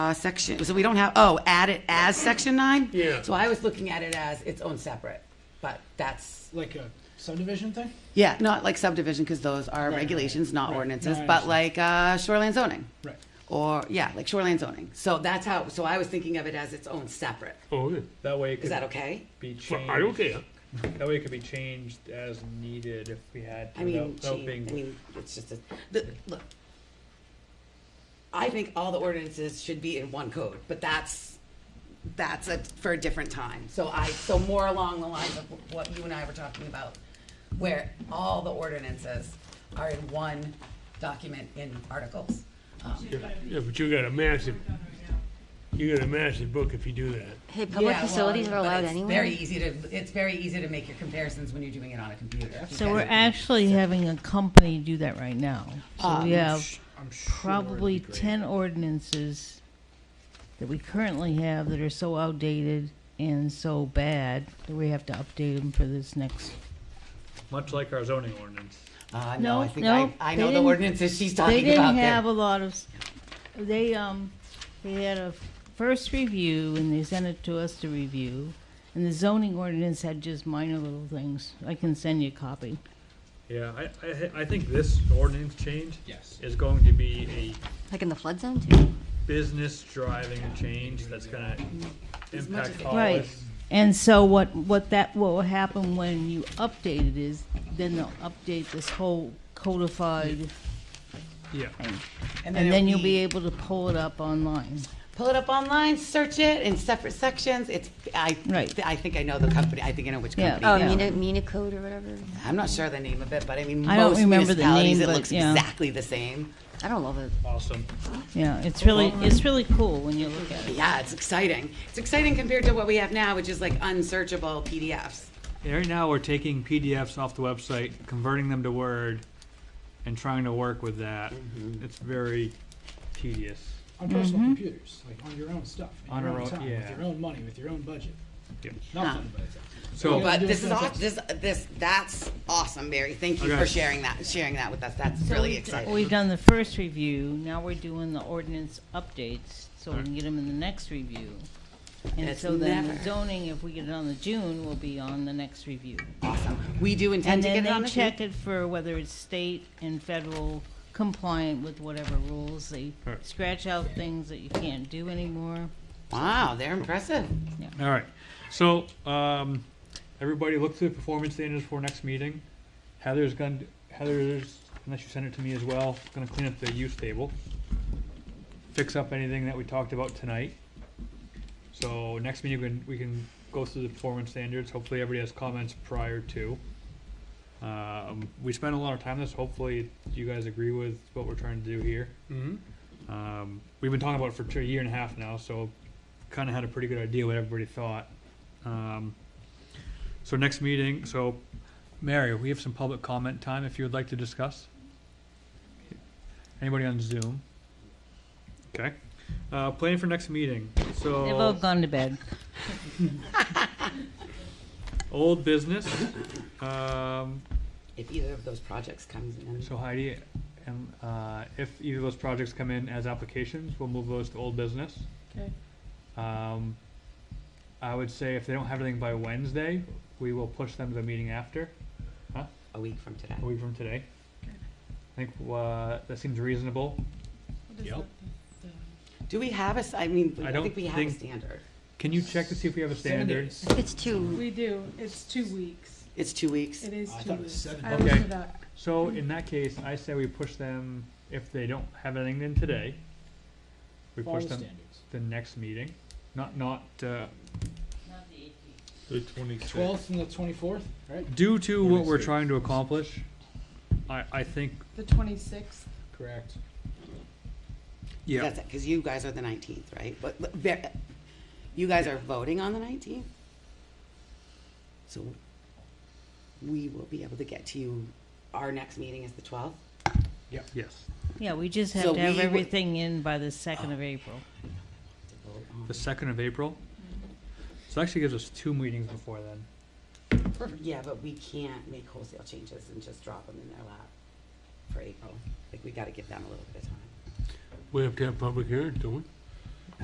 uh, section, so we don't have, oh, add it as section nine? Yeah. So I was looking at it as its own separate, but that's, Like a subdivision thing? yeah, not like subdivision, because those are right, regulations, not right. ordinances, No, I but like uh, shoreline zoning. Right. Or, yeah, like shoreline zoning. So that's how, so I was thinking of it as its own separate. Oh, okay. That way it Is could that okay? be Well, changed. I don't care. That way it could be changed as needed if we had to. I mean, without- without gee, being- I mean, it's just a, the, look. I think all the ordinances should be in one code, but that's, that's a, for a different time. So I, so more along the lines of what you and I were talking about, where all the ordinances are in one document in articles. Um, Yeah, yeah, but you got a massive, you got a massive book if you do that. Hey, public yeah, well, facilities are but allowed it's Very anyway? easy to, it's very easy to make your comparisons when you're doing it on a computer. So we're actually having a company do that right now. So we have I'm sure. probably ten ordinances that we currently have that are so outdated and so bad that we have to update them for this next. Much like our zoning ordinance. Uh, no, I No, think I, no, I they know the didn't- ordinances she's They talking about didn't there. have a lot of, s- they, um, they had a first review and they sent it to us to review. And the zoning ordinance had just minor little things. I can send you a copy. Yeah, I, I, I think this ordinance change Yes. is going to be a Like in the flood zone too? business driving change that's gonna impact all Right. this. And so what, what that, what will happen when you update it is, then they'll update this whole codified, Yeah, and then it'll you'll be able to pull it up online. pull it up online, search it in separate sections. It's I Right. I think I know the company. I think I know which Yeah. company. Oh, Yeah. Mina, Mina code or whatever? I'm not sure the name of it, but I mean I don't most remember the municipalities name, it but looks yeah. exactly the same. I don't love it. awesome. Yeah, it's really, it's really cool when you look at it. Yeah, it's exciting. It's exciting compared to what we have now, which is like unsearchable PDFs. Yeah, right now, we're taking PDFs off the website, converting them to Word, and trying to work with that. Mm-hmm. It's very Tedious. On personal Mm-hmm. computers, like on your own stuff, in On your our own own- time, with yeah. your own money, with your own budget. Yeah. Not Huh. fun, but it's. so. Yeah, But do this it is for aw- the this this that's awesome, Mary. Thank you Okay. for sharing that sharing that with us. That's really exciting. We've done the first review, now we're doing the ordinance updates, so we can get them in the next review. And It's so then the never- zoning, if we get it on the June, will be on the next review. awesome. We do intend And to then get it on they the check it for whether it's state and federal compliant with whatever rules. They Right. scratch out things that you can't do anymore. Wow, they're impressive. All right. So, um, everybody look through the performance standards for next meeting. Heather's going to, Heather's, unless you send it to me as well, going to clean up the use table. Fix up anything that we talked about tonight. So next meeting, we can, we can go through the performance standards. Hopefully everybody has comments prior to. Um, we spent a lot of time on this. Hopefully you guys agree with what we're trying to do here. Mm-hmm. Um, we've been talking about it for two- a year and a half now, so kind of had a pretty good idea what everybody thought. Um, so next meeting, so Mary, we have some public comment time if you would like to discuss. Anybody on Zoom? Okay. Uh, plan for next meeting. They've So all gone to bed. old business. Um, If either of those projects comes in, so Heidi, and uh, if either of those projects come in as applications, we'll move those to old business. Okay. Um, I would say if they don't have anything by Wednesday, we will push them to the meeting after, a week from today. a week from today. I think, uh, that seems reasonable. Yep. Do we have a, s- I mean, I I don't think we have a think- standard. Can you check to see if we have a Seven standard? days. It's too, We do. It's two weeks. It's two weeks. It is I two thought it was weeks. seven. I looked Okay. it up. So in that case, I say we push them, if they don't have anything in today, we Follow push the them standards. the next meeting, not, not, uh, The twenty-sixth. Twelfth and the twenty-fourth, right? due to what we're 26. trying to accomplish, I, I think, The twenty-sixth. Correct. yeah, That's it, because you guys are the nineteenth, right? But, but ver- you guys are voting on the nineteenth? So we will be able to get to you, our next meeting is the twelfth? yes. Yeah, we just So have to have we would- everything in by the second of April. The second of April. So that actually gives us two meetings before then. Yeah, but we can't make wholesale changes and just drop them in their lap for April. Like, we gotta give them a little bit of time. We have to have public hearing, don't we?